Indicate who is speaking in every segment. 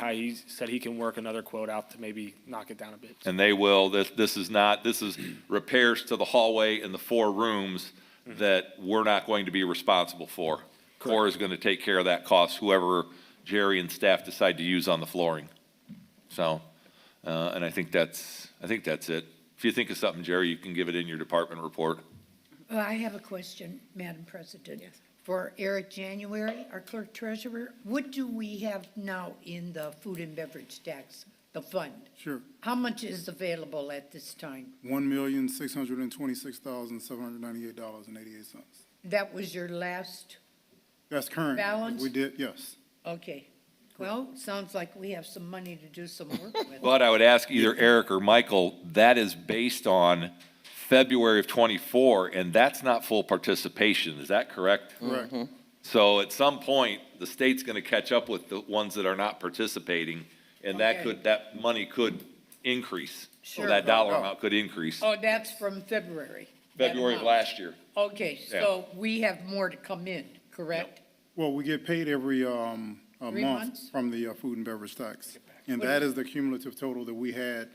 Speaker 1: how he said he can work another quote out to maybe knock it down a bit.
Speaker 2: And they will, this, this is not, this is repairs to the hallway and the four rooms that we're not going to be responsible for. Core is going to take care of that cost, whoever Jerry and staff decide to use on the flooring. So, uh, and I think that's, I think that's it. If you think of something, Jerry, you can give it in your department report.
Speaker 3: Well, I have a question, Madam President. For Eric January, our clerk treasurer, what do we have now in the food and beverage tax, the fund?
Speaker 4: Sure.
Speaker 3: How much is available at this time?
Speaker 4: One million, six hundred and twenty-six thousand, seven hundred and ninety-eight dollars and eighty-eight cents.
Speaker 3: That was your last,
Speaker 4: That's current.
Speaker 3: Balance?
Speaker 4: We did, yes.
Speaker 3: okay. Well, sounds like we have some money to do some work with.
Speaker 2: But I would ask either Eric or Michael, that is based on February of twenty-four, and that's not full participation, is that correct?
Speaker 3: Mm-hmm.
Speaker 4: Correct.
Speaker 2: So at some point, the state's gonna catch up with the ones that are not participating, and that
Speaker 3: Okay.
Speaker 2: could, that money could increase. So
Speaker 3: Sure.
Speaker 2: That dollar amount could increase,
Speaker 3: Oh, that's from February. that
Speaker 2: February of
Speaker 3: amount.
Speaker 2: last year.
Speaker 3: Okay, so we have more to come in, correct?
Speaker 4: Well, we get paid every, um, a
Speaker 3: Three
Speaker 4: month
Speaker 3: months?
Speaker 4: from the uh, food and beverage tax. And
Speaker 3: What
Speaker 4: that
Speaker 3: is-
Speaker 4: is the cumulative total that we had,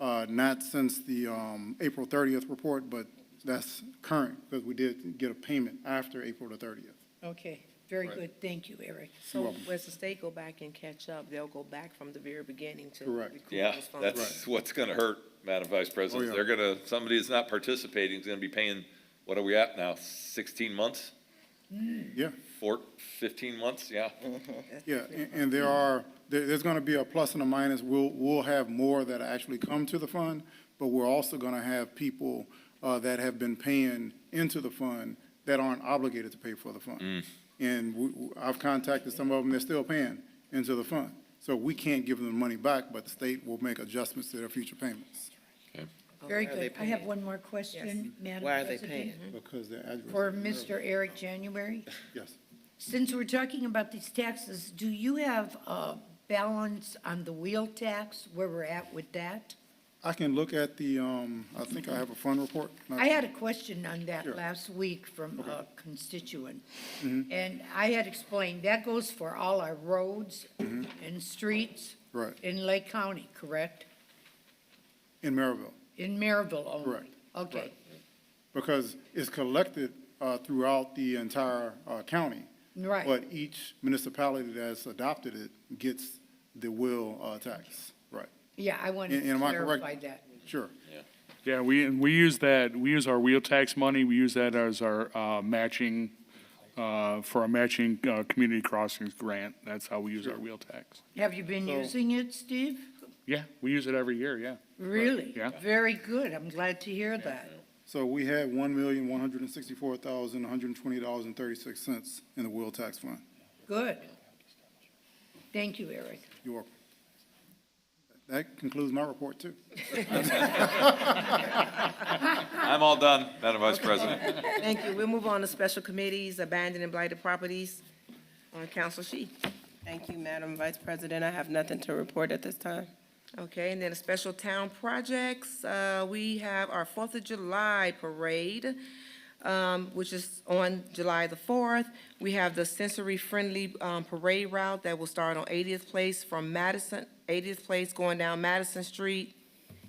Speaker 4: uh, not since the, um, April thirtieth report, but that's current, because we did get a payment after April the thirtieth.
Speaker 3: Okay, very good, thank you, Eric.
Speaker 5: So as the state go back and catch up, they'll go back from the very beginning to.
Speaker 4: Correct.
Speaker 5: recoup
Speaker 2: Yeah,
Speaker 5: those funds.
Speaker 2: that's what's gonna hurt, Madam Vice President.
Speaker 4: Oh, yeah.
Speaker 2: They're gonna, somebody that's not participating is gonna be paying, what are we at now, sixteen months?
Speaker 4: Yeah.
Speaker 2: Four, fifteen months, yeah.
Speaker 4: Yeah, and, and there are, there, there's gonna be a plus and a minus. We'll, we'll have more that actually come to the fund, but we're also gonna have people, uh, that have been paying into the fund that aren't obligated to pay for the fund. And we, we- I've contacted some of them, they're still paying into the fund. So we can't give them the money back, but the state will make adjustments to their future payments.
Speaker 5: Oh,
Speaker 3: Very
Speaker 5: why are they
Speaker 3: good. I have
Speaker 5: paying?
Speaker 3: one more question, Madam President.
Speaker 5: Why are they paying?
Speaker 4: Because they're addressed.
Speaker 3: For Mr. Eric January.
Speaker 4: Yes.
Speaker 3: Since we're talking about these taxes, do you have a balance on the wheel tax, where we're at with that?
Speaker 4: I can look at the, um, I think I have a fund report.
Speaker 3: I had a question on that
Speaker 4: Sure. Mm-hmm.
Speaker 3: last week from a constituent. And I had explained, that goes for all our roads and streets.
Speaker 4: Mm-hmm. Right.
Speaker 3: In Lake County, correct?
Speaker 4: In Maryville.
Speaker 3: In Maryville only?
Speaker 4: Correct.
Speaker 3: Okay,
Speaker 4: Right. because it's collected uh, throughout the entire uh, county.
Speaker 3: Right.
Speaker 4: But each municipality that's adopted it gets the will uh, tax, right.
Speaker 3: yeah, I wanted
Speaker 4: And-
Speaker 3: to
Speaker 4: and am I correct?
Speaker 3: clarify that.
Speaker 4: Sure,
Speaker 6: Yeah, we, and we use that, we use our wheel tax money, we use that as our uh, matching, uh, for our matching uh, community crossings grant. That's how we use our wheel tax.
Speaker 3: Have you been using it, Steve?
Speaker 6: Yeah, we use it every year, yeah.
Speaker 3: Really?
Speaker 6: Yeah.
Speaker 3: Very good, I'm glad to hear that.
Speaker 4: so we had one million, one hundred and sixty-four thousand, one hundred and twenty dollars and thirty-six cents in the will tax fund.
Speaker 3: Good. Thank you, Eric.
Speaker 4: You're welcome. That concludes my report, too.
Speaker 2: I'm all done, Madam Vice President.
Speaker 5: Thank you. We'll move on to special committees, abandoned and blighted properties on Council She.
Speaker 7: Thank you, Madam Vice President. I have nothing to report at this time.
Speaker 5: Okay, and then the special town projects, uh, we have our Fourth of July parade, um, which is on July the fourth. We have the sensory-friendly, um, parade route that will start on Eightieth Place from Madison, Eightieth Place going down Madison Street,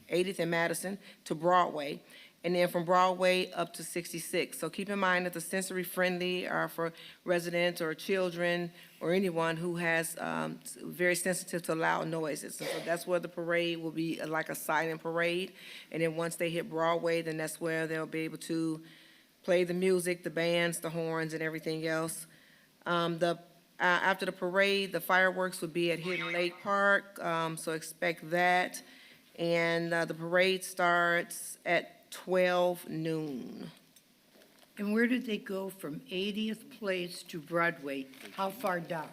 Speaker 5: Eightieth and Madison to Broadway, and then from Broadway up to Sixty-Six. So keep in mind that the sensory-friendly are for residents or children or anyone who has, um, s- very sensitive to loud noises. And So that's where the parade will be uh, like a silent parade. And then once they hit Broadway, then that's where they'll be able to play the music, the bands, the horns, and everything else. Um, the, uh, after the parade, the fireworks would be at Hidden Lake Park, um, so expect that. And, uh, the parade starts at twelve noon.
Speaker 3: And where did they go from 80th Place to Broadway? How far down?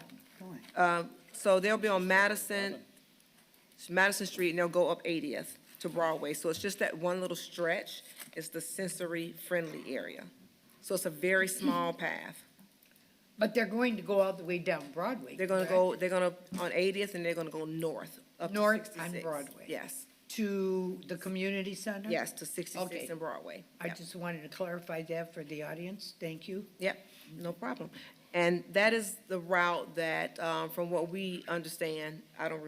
Speaker 5: So they'll be on Madison, Madison Street, and they'll go up Eightieth to Broadway. So it's just that one little stretch, it's the sensory-friendly area. So it's a very small path.
Speaker 3: But they're going to go all the way down Broadway.
Speaker 5: They're gonna
Speaker 3: correct?
Speaker 5: go, they're gonna, on Eightieth, and they're gonna go north, up to
Speaker 3: North on
Speaker 5: 66.
Speaker 3: Broadway.
Speaker 5: Yes,
Speaker 3: To the community center?
Speaker 5: yes, to
Speaker 3: Okay.
Speaker 5: sixty-six and Broadway.
Speaker 3: I
Speaker 5: Yep.
Speaker 3: just wanted to clarify that for the audience. Thank you.
Speaker 5: Yep, no um, problem. And that is the route that, uh, from what we understand, I don't